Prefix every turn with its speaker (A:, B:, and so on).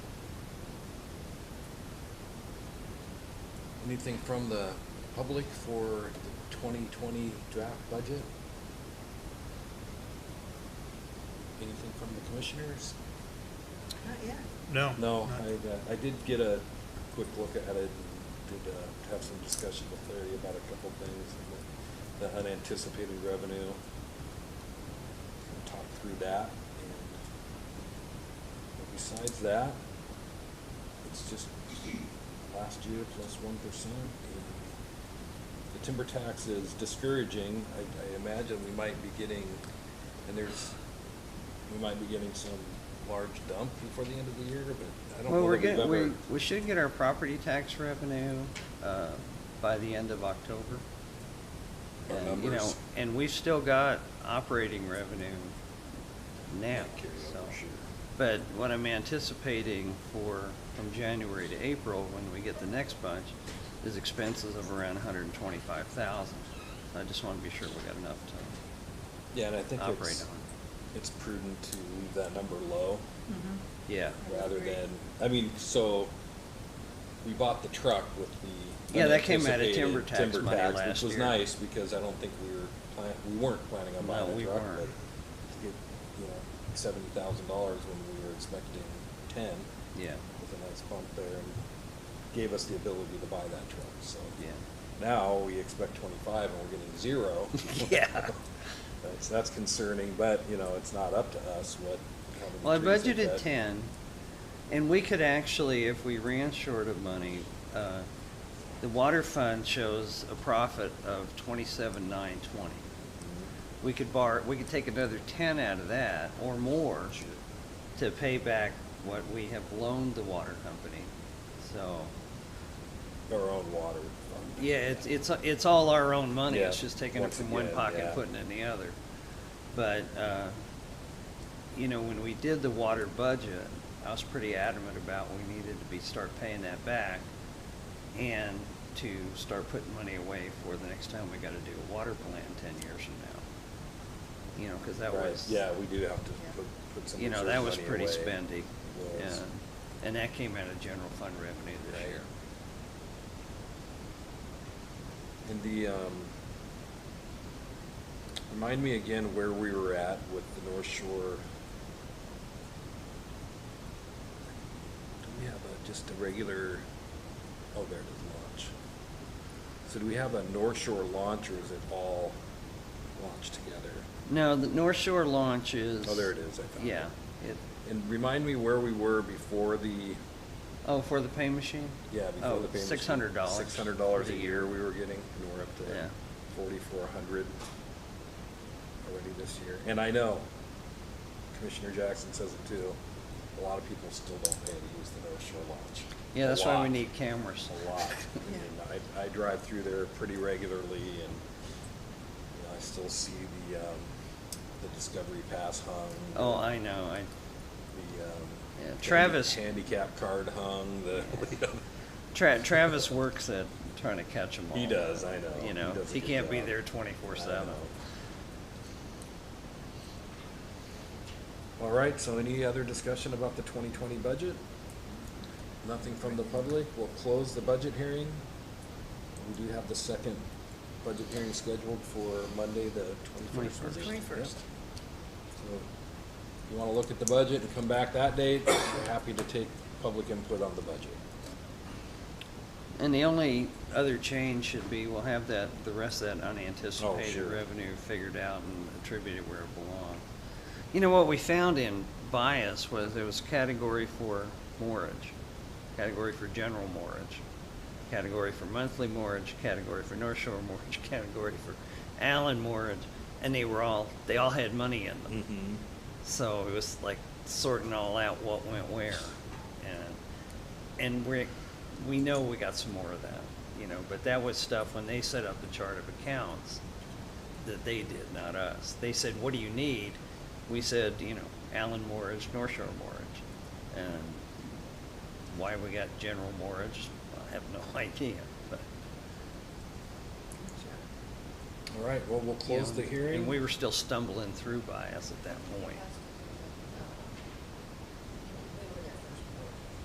A: anything from the public for the 2020 draft budget? Anything from the commissioners?
B: Not yet.
C: No.
A: No,
C: not-
A: I, uh, I did get a quick look at it, and did uh, have some discussion with Larry about a couple things, and the the unanticipated revenue. Talked through that, and but besides that, it's just last year plus one percent. The timber tax is discouraging, I, I imagine we might be getting, and there's, we might be getting some large dump before the end of the year, but I don't
D: Well,
A: know
D: we're
A: that we've
D: getting, we,
A: ever-
D: we should get our property tax revenue, uh, by the end of October.
A: Our
D: And, you know,
A: numbers.
D: And we've still got operating revenue now,
A: Not carry
D: so.
A: over, sure.
D: But what I'm anticipating for, from January to April, when we get the next bunch, is expenses of around hundred and twenty-five thousand. I just wanna be sure we got enough
A: Yeah, and I
D: to
A: think
D: operate
A: it's,
D: on.
A: it's prudent to leave that number low
D: Yeah.
B: I would
A: rather
B: agree.
A: than, I mean, so we bought the truck with the
D: Yeah, that came out of
A: unanticipated
D: timber tax
A: timber
D: money
A: tax,
D: last
A: Which was
D: year.
A: nice because I don't think we were plan, we weren't planning on
D: No,
A: buying a
D: we
A: truck,
D: weren't.
A: but to get, you know, seventy thousand dollars when we were expecting ten.
D: Yeah.
A: With a nice bump there and gave us the ability to buy that truck, so.
D: Yeah.
A: Now we expect twenty-five and we're getting zero.
D: Yeah.
A: That's, that's concerning, but, you know, it's not up to us what. how many
D: Well, I
A: trees they
D: budgeted
A: cut.
D: ten, and we could actually, if we ran short of money, uh, the water fund shows a profit of twenty-seven nine twenty. We could borrow, we could take another ten out of that or more
A: Sure.
D: to pay back what we have loaned the water company. So,
A: Our own water. fund.
D: yeah, it's, it's, it's all our own money, it's
A: Yeah,
D: just taking it
A: once
D: from one
A: again,
D: pocket,
A: yeah.
D: and putting it in the other. But, uh, you know, when we did the water budget, I was pretty adamant about we needed to be, start paying that back and to start putting money away for the next time we gotta do a water plan ten years from now. You know, cause that
A: Right,
D: was.
A: Yeah, we do have to
B: Yeah.
A: put, put some
D: You know,
A: reserve
D: that was
A: money
D: pretty
A: away.
D: spendy,
A: It
D: yeah,
A: was.
D: and that came out of general fund revenue this
A: Right.
D: year.
A: And the, um, remind me again where we were at with the North Shore. Do we have a, just a regular, oh, there it is, launch. So do we have a North Shore launch or is it all launched together?
D: No, the North Shore launch is.
A: Oh, there it is, I found it.
D: Yeah, it,
A: And remind me where we were before the,
D: oh, for the pay machine? Oh,
A: yeah, before the payment.
D: Six hundred dollars.
A: Six hundred dollars a year we were getting, and we're up
D: Yeah.
A: to forty-four hundred already this year. And I know, Commissioner Jackson says it too, a lot of people still don't pay to use the North Shore Lodge.
D: Yeah,
A: A
D: that's why we
A: lot.
D: need cameras.
A: A lot.
B: Yeah.
A: I mean, I, I drive through there pretty regularly and, you know, I still see the, um, the Discovery Pass hung.
D: Oh,
A: the-
D: I know, I,
A: the, um,
D: Yeah,
A: handi-
D: Travis-
A: Handicap card hung, the,
D: Tra- Travis works at trying to catch them all.
A: he does, I know.
D: You know,
A: does a
D: he
A: good
D: can't be
A: job.
D: there twenty-four
A: I
D: seven.
A: know. All right, so any other discussion about the twenty twenty budget? Nothing from the public, we'll close the budget hearing. We do have the second budget hearing scheduled for Monday, the twenty-first.
D: 21st.
B: Twenty-first.
A: So, if you wanna look at the budget and come back that date, we're happy to take public input on the budget.
D: And the only other change should be, we'll have that, the rest of that
A: sure.
D: unanticipated revenue figured out and attributed where it belonged. You know, what we found in bias was there was category for mortgage, category for general mortgage, category for monthly mortgage, category for North Shore mortgage, category for Allen mortgage, and they were all, they all had money in them. So it was like sorting all out what went where. And, and we, we know we got some more of that, you know, but that was stuff when they set up the chart of accounts that they did, not us. They said, what do you need? We said, you know, Allen Mortgage, North Shore Mortgage. And why we got General Mortgage, I have no idea, but.
A: All right, well, we'll
D: you
A: close
D: know,
A: the hearing.
B: uh,
D: And we were still stumbling through bias at that point.